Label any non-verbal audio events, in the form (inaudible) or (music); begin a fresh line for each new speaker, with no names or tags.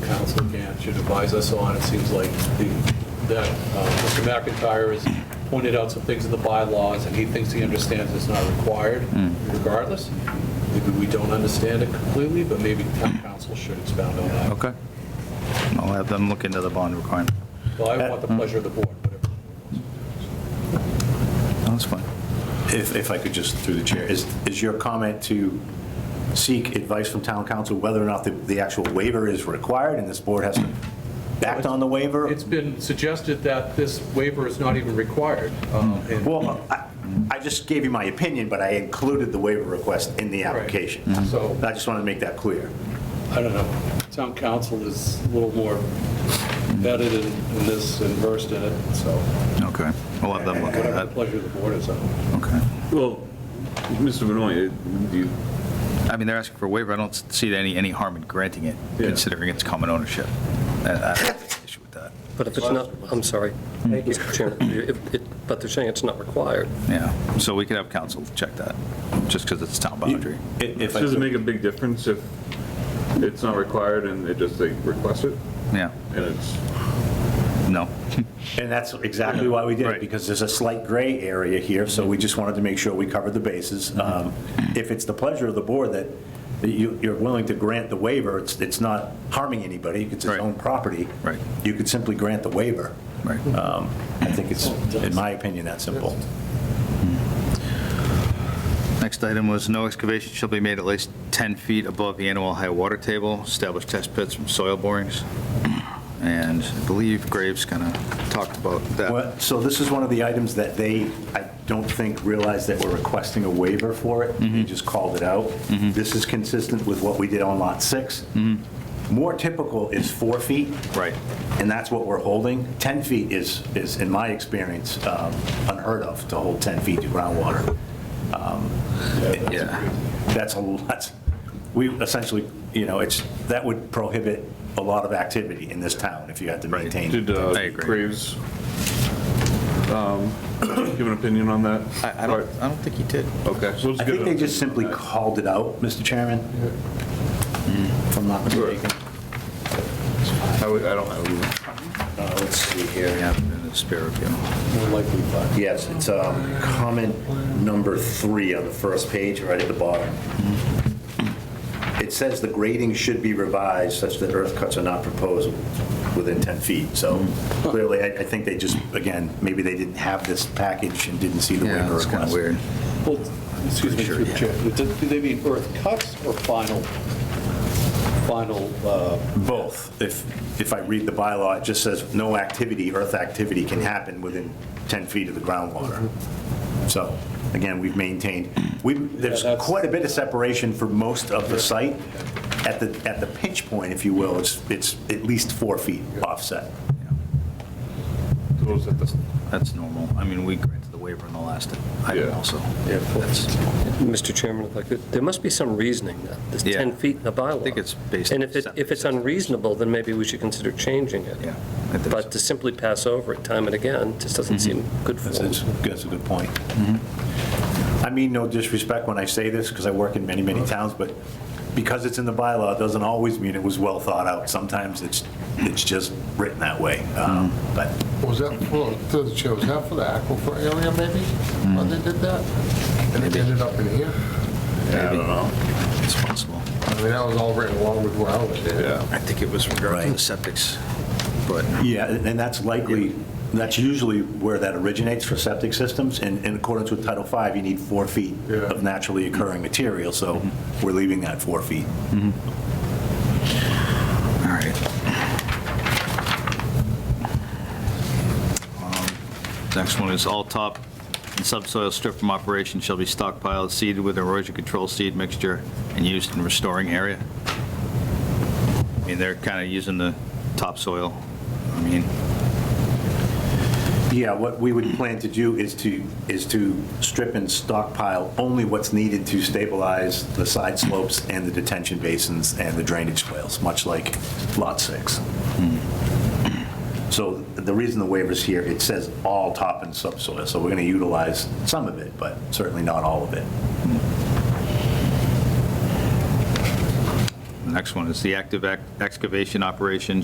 should advise us on. It seems like the, that uh, Mr. McIntyre has pointed out some things in the bylaws, and he thinks he understands it's not required regardless. Maybe we don't understand it completely, but maybe town council should expound on that.
Okay. I'll have them look into the bond requirement.
Well, I want the pleasure of the board, whatever.
Oh, That's fine.
If, if I could just, through the chair, is, is your comment to seek advice from town council whether or not the, the actual waiver is required and this board has backed on the waiver?
It's been suggested that this waiver is not even required. um, and-
Well, I, I just gave you my opinion, but I included the waiver request in the application.
Right. Mhm. So-
I just wanted to make that clear.
I don't know, town council is a little more vetted in in this and versed in it, so
Okay. I'll have them look at
whatever
that.
the pleasure of the board is on.
Okay.
Well, Mr. Benoit, it- you-
I mean, they're asking for a waiver. I don't see any, any harm in granting it,
Yeah.
considering it's common ownership. I I don't have an issue with that.
But if it's not, I'm sorry, Mr. Chairman, if it- but they're saying it's not required.
Yeah. So we could have council check that, just because it's town boundary.
If I
does it
could-
make a big difference if it's not required and they just, they request it?
Yeah.
And it's,
No.
And that's exactly why we did
Right.
it, because there's a slight gray area here, so we just wanted to make sure we covered the bases. Um, If it's the pleasure of the board that that you- you're willing to grant the waiver, it's it's not harming anybody, it's its
Right.
own property.
Right.
You could simply grant the waiver.
Right.
Um, I think it's, in my opinion, that simple.
Next item was no excavation shall be made at least 10 feet above the annual high water table, establish test pits from soil borings. And I believe Graves kind of talked about that.
Well, So this is one of the items that they, I don't think, realized that we're requesting a waiver for it.
Mm-hmm.
They just called it out. This is consistent with what we did on Lot 6. More typical is four feet.
Mm-hmm. Right.
And that's what we're holding. 10 feet is, is, in my experience, um, unheard of, to hold 10 feet to groundwater. Um,
Yeah.
That's a, that's, we essentially, you know, it's, that would prohibit a lot of activity in this town if you had to
Right.
maintain.
did
I
uh,
agree.
Graves um, (coughs) give an opinion on that?
I I don't, I don't think he did.
Okay. so let's
I
get
think they
an
just simply
opinion on
called it out, Mr. Chairman, if I'm not mistaken.
that. I would- I don't, I wouldn't-
Uh, Let's see here.
Yeah, in the spare review.
More likely, but
Yes, it's um, comment number three on the first page, right at the bottom. It says the grading should be revised such that earth cuts are not proposed within 10 feet. So
Hmm.
clearly, I I think they just, again, maybe they didn't have this package and didn't see the
Yeah,
waiver
that's kind of
request.
weird.
Well, excuse me,
Sure,
through the
yeah.
chair, do do they mean earth cuts or final, final, uh,
Both. If, if I read the bylaw, it just says no activity, earth activity can happen within 10 feet of the groundwater. So, again, we've maintained, we, there's
Yeah, that's-
quite a bit of separation for most of the site. At the, at the pinch point, if you will, it's, it's at least four feet offset.
what was it, the-
That's normal. I mean, we granted the waiver in the last item
Yeah.
also.
Yeah, of course.
That's-
Mr. Chairman, if I could, there must be some reasoning, that this
Yeah.
10 feet in the bylaw. I
think it's based
And
on
if it, if it's
setbacks.
unreasonable, then maybe we should consider changing it.
Yeah. I think so. Mm-hmm.
But to simply pass over it time and again just doesn't seem good
That's,
form.
that's that's a good point. I mean no disrespect when I say this, because I work in many, many towns, but because it's in the bylaw, it doesn't always mean it was well thought out. Sometimes it's, it's just written that way. Um, But
Was that for, through the chair, was that for the aquifer area maybe, when they did that? And it ended up in here?
I don't know.
It's possible.
I mean, that was all right along with where I was at.
Yeah.
I think it was regarding the
Right.
septics, but
Yeah, and and that's likely, that's usually where that originates for septic systems. And in accordance with Title V, you need four feet
Yeah.
of naturally occurring material, so we're leaving that four feet.
All right. Um, Next one is all top and subsoil strip from operation shall be stockpiled, seeded with erosion control seed mixture, and used in restoring area. I mean, they're kind of using the topsoil. I mean,
Yeah, what we would plan to do is to, is to strip and stockpile only what's needed to stabilize the side slopes and the detention basins and the drainage swales, much like Lot 6. So the reason the waiver's here, it says all top and subsoil, so we're going to utilize some of it, but certainly not all of it.
the next one is the active ex- excavation operation